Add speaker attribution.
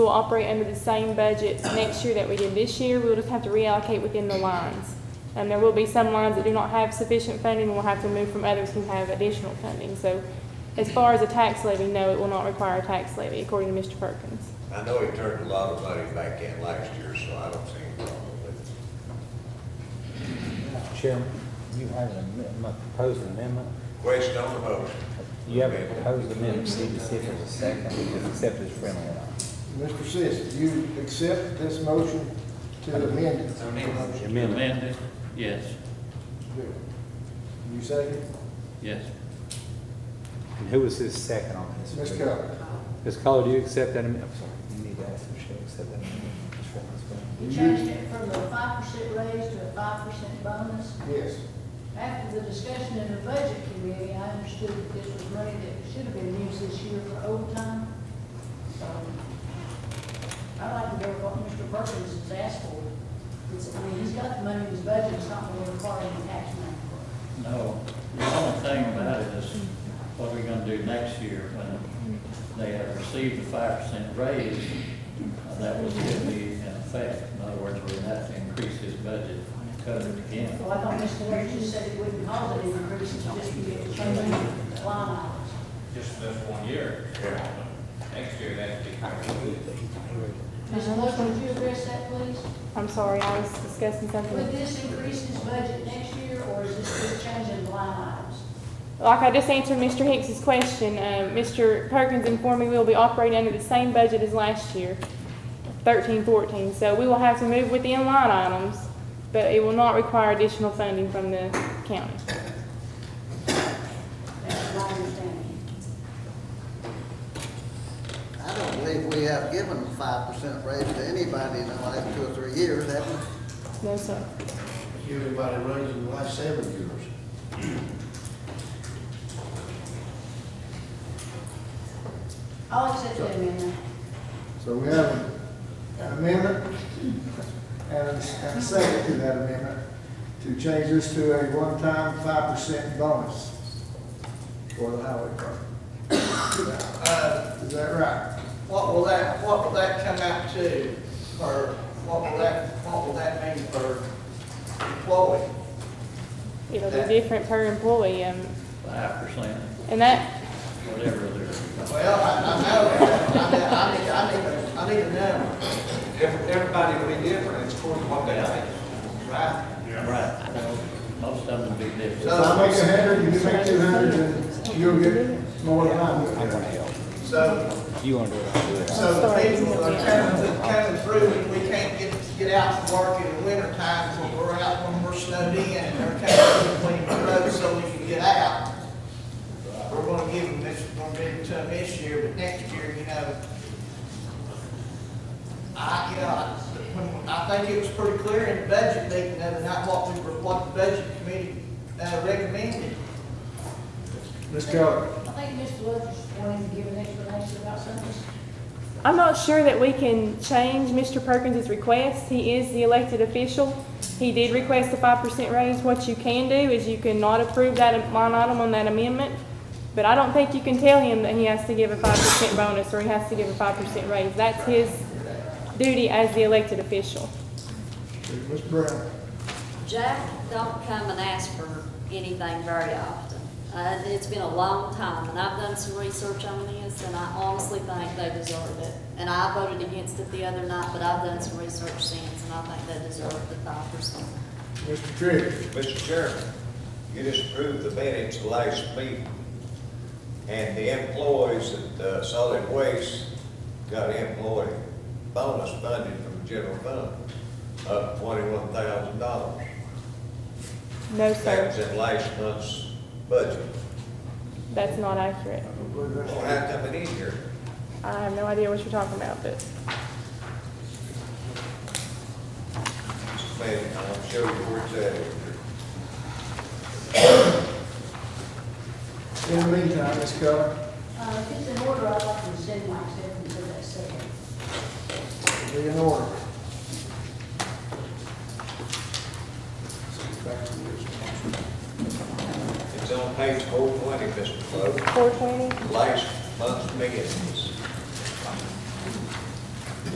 Speaker 1: We'll operate under the same budgets next year that we did this year. We'll just have to reallocate within the lines. And there will be some lines that do not have sufficient funding, and we'll have to move from others who have additional funding. So as far as a tax levy, no, it will not require a tax levy, according to Mr. Perkins.
Speaker 2: I know he turned a lot of money back in last year, so I don't see any problem with it.
Speaker 3: Chairman, you have an amendment, proposed amendment.
Speaker 2: Question on the motion.
Speaker 3: You have a proposed amendment, we need to see if there's a second, we just accept it as friendly or not.
Speaker 4: Mr. Sis, you accept this motion to amend it?
Speaker 3: Amendment.
Speaker 5: Amended, yes,
Speaker 4: You second?
Speaker 5: yes.
Speaker 3: And who was his second on this?
Speaker 4: Ms. Keller?
Speaker 3: Ms. Keller, do you accept that amendment? I'm sorry, you need to ask if she accept that amendment. as friendly as well.
Speaker 6: You changed it from a five percent raise to a five percent bonus.
Speaker 4: Yes.
Speaker 6: After the discussion in the budget committee, I understood that this was money that should have been used this year for overtime. So I'd like to go with what Mr. Perkins has asked for. It's, I mean, he's got the money in his budget, it's not going to require any tax money for it.
Speaker 5: No, the only thing about it is what we're gonna do next year when they have received the five percent raise. uh, That was gonna be in effect. In other words, we're gonna have to increase his budget and cut it again.
Speaker 6: Well, I thought Mr. Ware just said it wouldn't cause any increase, it's just be a change in line items.
Speaker 7: just this one year. Next year, that'd be.
Speaker 6: Ms. Lewis, would you address that, please?
Speaker 1: I'm sorry, I was discussing something.
Speaker 6: Would this increase his budget next year, or is this just changing line items?
Speaker 1: Like I just answered Mr. Hicks's question, um, Mr. Perkins informed me we will be operating under the same budget as last year, thirteen, fourteen, so we will have to move within line items, but it will not require additional funding from the county.
Speaker 6: That's my understanding.
Speaker 8: I don't believe we have given five percent raise to anybody in the last two or three years, have we?
Speaker 1: No, sir.
Speaker 4: Everybody raised in the last seven years.
Speaker 6: I'll accept that amendment.
Speaker 4: So we have an amendment and a and a second to that amendment to change this to a one-time five percent bonus for the highway department. Is that right?
Speaker 9: Uh, What will that, what will that come out to, or what will that, what will that mean for employee?
Speaker 1: It'll be different per employee, um,
Speaker 5: Five percent,
Speaker 1: and that,
Speaker 5: whatever they're,
Speaker 9: Well, I, I know, I, I need, I need, I need a number,
Speaker 7: Everybody will be different, it's according to what they think.
Speaker 9: right?
Speaker 5: right. Well, Most of them will be
Speaker 4: So if I
Speaker 5: different.
Speaker 4: make a hundred, you make two hundred, and you'll get more than I
Speaker 3: I want
Speaker 4: will.
Speaker 3: to help.
Speaker 9: So,
Speaker 3: You want to do it, I'll do it.
Speaker 9: so the people that are coming, coming through, and we can't get, get out to work in the winter time, so we're out when we're snowed in, and they're coming through cleaning the roads so we can get out. We're gonna give them this, we're gonna give it to them this year, but next year, you know, I, you know, I- when- I think it was pretty clear in the budget meeting the other night what we were, what the budget committee uh, recommended.
Speaker 4: Ms. Keller?
Speaker 6: I think Mr. Lewis wanted to give an explanation about something.
Speaker 1: I'm not sure that we can change Mr. Perkins' request. He is the elected official. He did request a five percent raise. What you can do is you can not approve that line item on that amendment. But I don't think you can tell him that he has to give a five percent bonus or he has to give a five percent raise. That's his duty as the elected official.
Speaker 4: Ms. Brown?
Speaker 10: Jack don't come and ask for anything very often. Uh, it's been a long time, and I've done some research on this, and I honestly think they deserve it. And I voted against it the other night, but I've done some research since, and I think they deserve the five percent.
Speaker 4: Mr. Trigg?
Speaker 2: Mr. Chairman, you just approved the minutes of last meeting, and the employees at uh, Solid Waste got employee bonus funding from the general fund of twenty-one thousand dollars.
Speaker 1: No,
Speaker 2: That
Speaker 1: sir,
Speaker 2: was in last month's budget.
Speaker 1: that's not accurate.
Speaker 2: Well, how come it in here?
Speaker 1: I have no idea what you're talking about, but
Speaker 2: Man, I'm sure you were telling.
Speaker 4: In the meantime, Ms. Keller,
Speaker 6: Uh, if it's in order, I'd like to send my acceptance of that second.
Speaker 4: it'll be in order.
Speaker 2: It's on page four twenty, Mr. Clover,
Speaker 1: four twenty?
Speaker 2: last month's meetings.